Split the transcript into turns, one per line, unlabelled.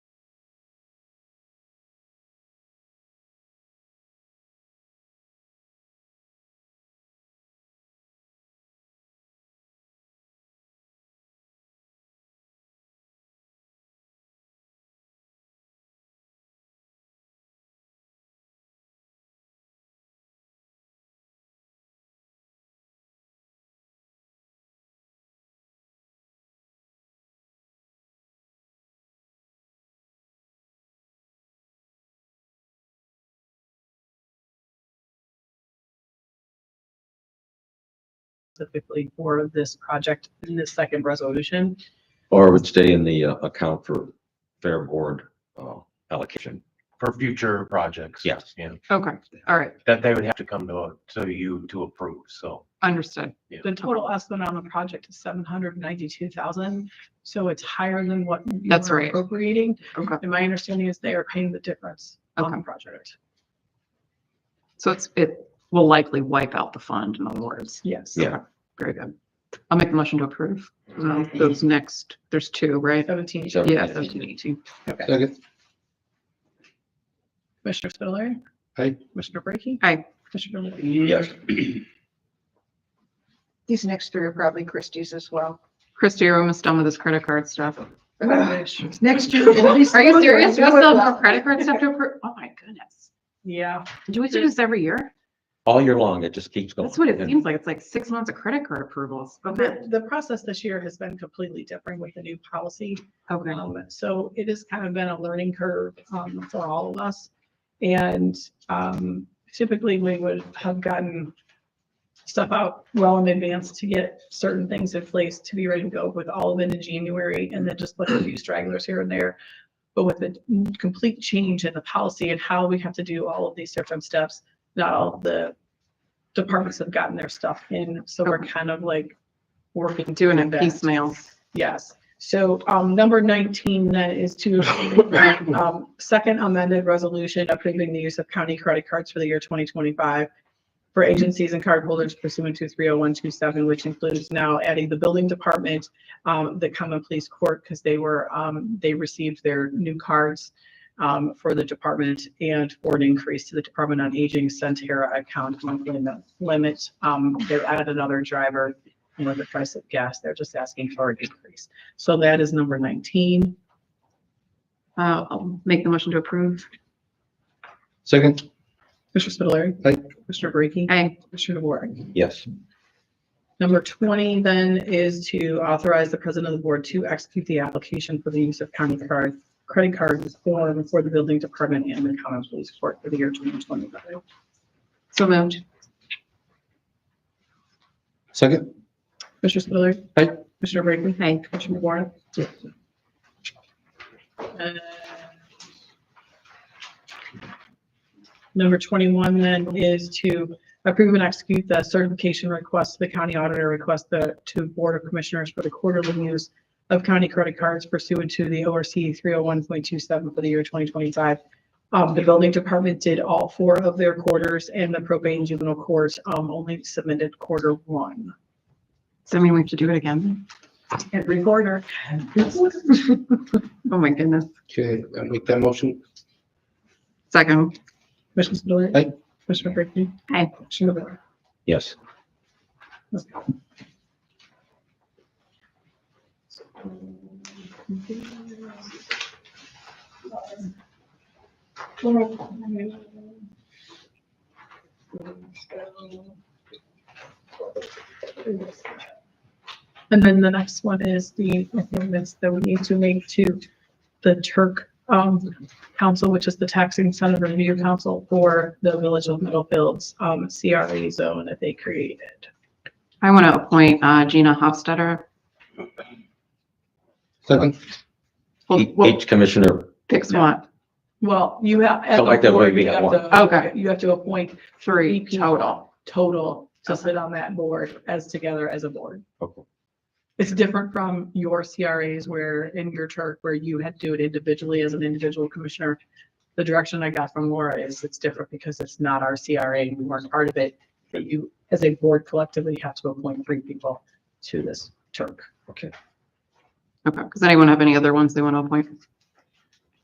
specifically for this project in this second resolution.
Or it would stay in the uh, account for fair board uh, allocation.
for future projects.
Yes.
Yeah,
Okay, all right,
that they would have to come to, to you to approve, so.
understood.
The total estimate on the project is seven hundred ninety-two thousand, so it's higher than what. you
That's
were
right.
Appropriating,
Okay,
and my understanding is they are paying the difference on the project.
so it's, it will likely wipe out the fund, in other words.
Yes.
Yeah.
Very good. I'll make the motion to approve. Um, Those next, there's two, right?
Seventeen,
So-
Yeah, 17.
okay.
Second,
Commissioner Spiller?
Aye.
Commissioner Brackey?
Aye.
Commissioner Levesey?
Yes.
These next three are probably Christie's as well.
Christie, are we almost done with this credit card stuff?
Next year. we'll be-
Are you serious? We still have credit card stuff to approve? Oh my goodness.
Yeah,
Do we do this every year?
All year long, it just keeps going.
That's what it
And-
seems like. It's like six months of credit card approvals. Okay,
the, the process this year has been completely different with the new policy.
okay.
Um, so it has kind of been a learning curve, um, for all of us. And, um, typically we would have gotten stuff out well in advance to get certain things in place to be ready to go with all of it in January and then just like a few stragglers here and there. But with the complete change in the policy and how we have to do all of these different steps, not all of the departments have gotten their stuff in. So we're
Okay.
kind of like working.
Doing it
through that.
piecemeal.
Yes, so um number nineteen then is to um second amended resolution approving the use of county credit cards for the year twenty twenty-five for agencies and cardholders pursuant to three oh one two seven, which includes now adding the building department, um, the common police court, because they were, um, they received their new cards um, for the department and for an increase to the Department on Aging Centera account monthly lim- limit. Um, they added another driver you know, the price of gas, they're just asking for an increase. So that is number nineteen.
Uh, I'll make the motion to approve.
second,
Mr. Spitaleri.
Aye.
Mr. Brady.
Aye.
Mr. DeWart.
Yes,
Number twenty then is to authorize the president of the board to execute the application for the use of county card, credit cards form for the building department and the common police court for the year twenty twenty-five.
So moved.
second,
Mr. Spitaleri.
Aye.
Mr. Brady.
Aye.
Commissioner Warren? Uh, Number twenty-one then is to approve and execute the certification request, the county auditor request the, to Board of Commissioners for the quarterly use of county credit cards pursuant to the ORC three oh one point two seven for the year twenty twenty-five. Um, the building department did all four of their quarters and the probate and juvenile courts, um, only submitted quarter one.
Does that mean we have to do it again?
Every quarter.
Oh my goodness.
okay, I'll make that motion,
Second,
Commissioner Spudler.
Aye.
Commissioner Brinkley.
Aye.
Commissioner Ward.
yes.
And then the next one is the amendments that we need to make to the Turk um council, which is the taxing incentive review council for the Village of Middlefield's um CRA zone that they created.
I want to appoint uh, Gina Hofstadter.
second,
Well,
E-
we'll
Each commissioner,
Picks one,
Well, you have.
So like that way we have one.
Okay.
You have to appoint
three
people
total.
total to
Okay.
sit on that board as together as a board.
Okay.
It's different from your CRAs where in your chart where you had to do it individually as an individual commissioner. The direction I got from Laura is it's different because it's not our CRA and we weren't part of it. But you, as a board collectively, have to appoint three people to this Turk.
Okay, does anyone have any other ones they want to appoint?